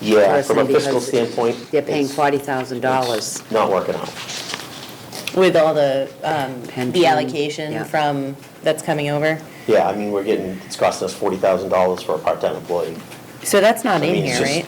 Yeah, person from a fiscal because standpoint. They're paying it's- forty thousand dollars. it's Not working out. With all the, um, Pension, the allocation yeah. from, that's coming over? Yeah, I mean, we're getting, it's costing us forty thousand dollars for a part-time employee. So that's not I in mean, it's here, right?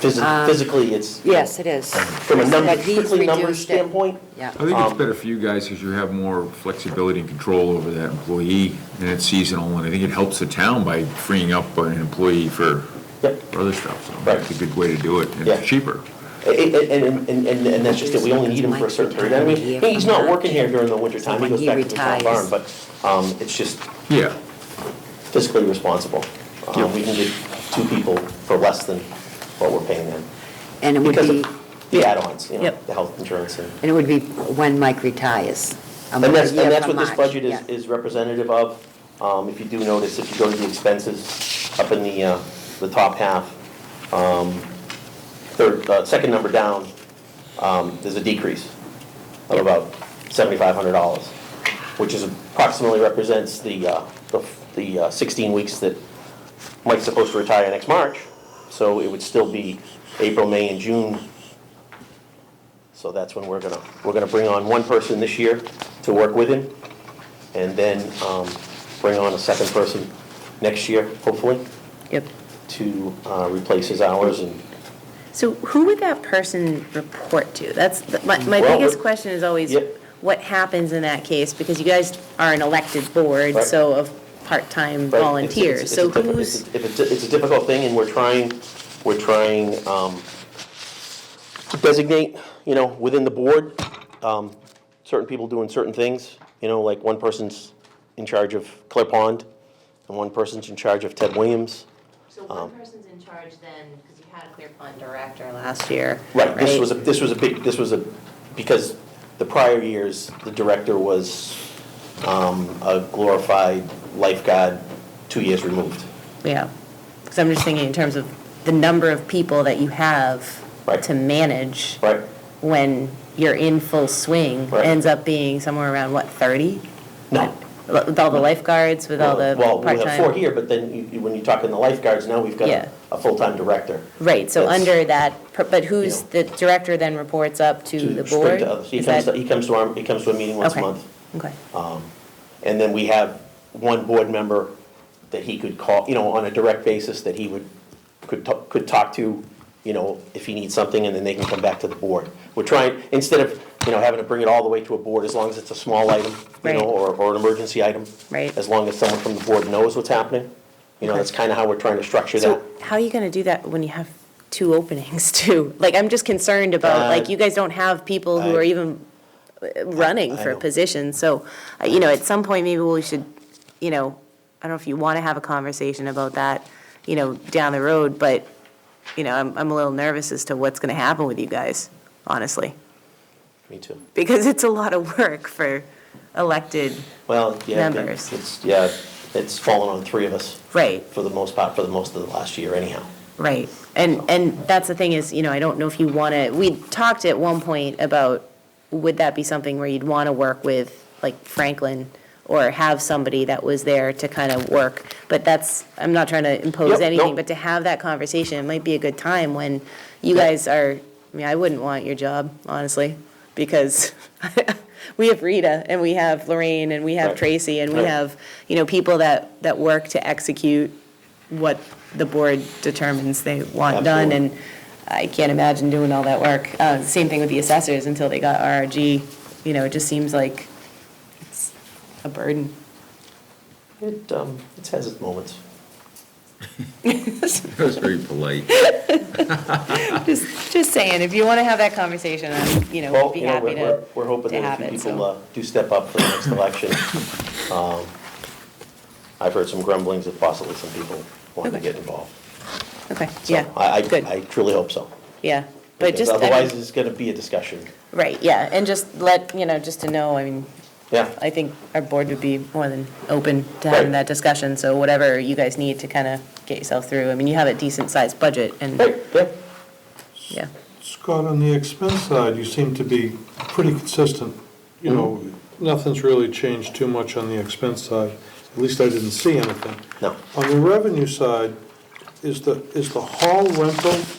just physi- Physically, it's. Um, Yes, it is. From a number, But he's strictly numbers reduced it. standpoint, Yeah. I think it's Um, better for you guys because you have more flexibility and control over that employee and it's seasonal and I think it helps the town by freeing up an employee for Yep. for other stuff. So it's a Right. good way to do it and Yeah. it's cheaper. And, and, and, and- and that's just it, we only need him for a certain period, I mean, hey, he's not working here during the winter time, he goes back to the town barn, but, um, it's just Yeah, fiscally responsible. Um, we can get two people for less than what we're paying them, And it would because be, of the add-ons, you know, Yep. the health insurance and. and it would be when Mike retires. um, And that's, a year and that's from what this March, budget is, yeah. is representative of. Um, if you do notice, if you go to the expenses up in the, uh, the top half, um, third, uh, second number down, um, there's a decrease of about seventy-five hundred dollars, which is approximately represents the, uh, the, the uh, sixteen weeks that Mike's supposed to retire next March. So it would still be April, May, and June so that's when we're gonna, we're gonna bring on one person this year to work with him, and then um, bring on a second person next year, hopefully, Yep. to uh, replace his hours and. So who would that person report to? That's, the- my, my Well, biggest we- question is always, Yeah. what happens in that case? Because you guys are an elected board, Right. so of part-time but it's- it's- volunteers. it's a Um, So diffi- who's, It's, a- it's a- it's a difficult thing, and we're trying, we're trying um, to designate, you know, within the board, um, certain people doing certain things, you know, like one person's in charge of Clear Pond, and one person's in charge of Ted Williams. So one person's in charge then, because you had a Clear Pond director last year. here, Right, this was, a this was a big, this was a, because the prior years, the director was um, a glorified lifeguard, two years removed. Yeah, because I'm just thinking in terms of the number of people that you have Right. to manage Right. when you're in full swing Right. ends up being somewhere around, what, 30? No. With all the lifeguards, with all the Well, we have four part-time? here, but then you- you- when you talk in the lifeguards, now we've got Yeah. a- a full-time director. Right, so That's- under that, per- but who's, You the director then reports up to the straight board? to others. He Is comes, to- that- he comes to our, he comes to a meeting once a Okay. month. Okay, And then we have one board member that he could call, you know, on a direct basis that he would, could, ta- could talk to, you know, if he needs something, and then they can come back to the board. We're trying, instead of, you know, having to bring it all the way to a board, as long as it's a small item, you know, Right. or, or an emergency item. Right. As long as someone from the board knows what's happening, you know, that's kind of how we're trying to structure that. so how are you going to do that when you have two openings too? Like, I'm just concerned about, like, Uh, you guys don't have people who I- are even uh, running I for a know. position, so, uh, you know, at some point, maybe we should, you know, I don't know if you want to have a conversation about that, you know, down the road, but, you know, I'm, I'm a little nervous as to what's going to happen with you guys, honestly, Me too. because it's a lot of work for elected, Well, yeah, it- Members. it's, yeah, it's fallen on three of us right, for the most part, for the most of the last year anyhow. right. And, and that's the thing is, you know, I don't know if you want to, we talked at one point about, would that be something where you'd want to work with, like Franklin, or have somebody that was there to kind of work? But that's, I'm not trying to Yep, impose no. anything, but to have that conversation, it might be a good time when you guys are, I mean, I wouldn't want your job, honestly, because we have Rita, and we have Lorraine, and we have Right. Tracy, and we Right. have, you know, people that, that work to execute what the board determines they want done, Absolutely. and I can't imagine doing all that work. Uh, Same thing with the assessors until they got RRG, you know, it just seems like it's a burden. It, um, it has its moments. that was very polite. Just, just saying, if you want to have that conversation, I'm, you know, Well, be you know, happy we're- we're, to, we're hoping to that have a few it, people so. uh, do step up for the next election. Um, I've heard some grumblings that possibly some people want to Okay. get involved. Okay, So yeah, I, good, I- I truly hope so. yeah. But because just, I mean- Otherwise, it's going to be a discussion. right, yeah, and just let, you know, just to know, I mean, Yeah, I think our board would be more than open to having Right. that discussion, so whatever you guys need to kind of get yourself through, I mean, you have a decent-sized budget, Right, and, yeah. yeah, Scott, on the expense side, you seem to be pretty consistent. You know, nothing's really changed too much on the expense side. At least I didn't see anything. No. On the revenue side, is the, is the hall rental